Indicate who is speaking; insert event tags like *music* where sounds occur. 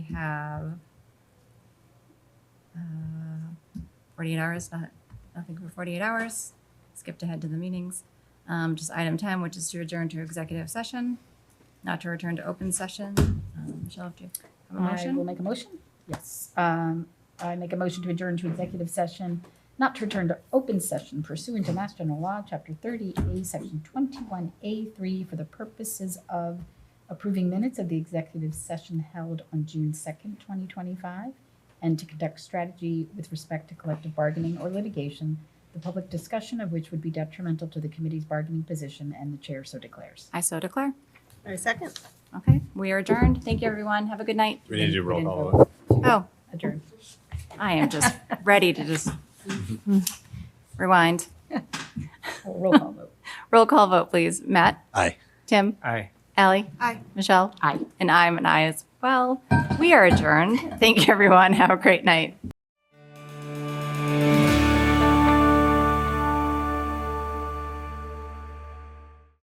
Speaker 1: have uh, 48 hours, not, nothing for 48 hours, skipped ahead to the meetings. Um, Just item 10, which is to adjourn to executive session, not to return to open session. Um, Michelle, do you have a
Speaker 2: I will
Speaker 1: motion?
Speaker 2: make a motion. Yes. Um, I make a motion to adjourn to executive session, not to return to open session pursuant to Mass General Law, Chapter 30A, Section 21A3, for the purposes of approving minutes of the executive session held on June 2nd, 2025, and to conduct strategy with respect to collective bargaining or litigation, the public discussion of which would be detrimental to the committee's bargaining position, and the chair so declares.
Speaker 1: I so declare.
Speaker 3: I second.
Speaker 1: Okay, we are adjourned. Thank you, everyone. Have a good night.
Speaker 4: We need to do roll call. vote.
Speaker 1: Oh,
Speaker 2: Adjourn.
Speaker 1: *laughs* I am just ready to just rewind.
Speaker 2: Roll call vote.
Speaker 1: Roll call vote, please. Matt?
Speaker 4: Aye.
Speaker 1: Tim?
Speaker 5: Aye.
Speaker 1: Allie?
Speaker 3: Aye.
Speaker 1: Michelle?
Speaker 2: Aye.
Speaker 1: And I'm an aye as well. We are adjourned. Thank you, everyone. Have a great night.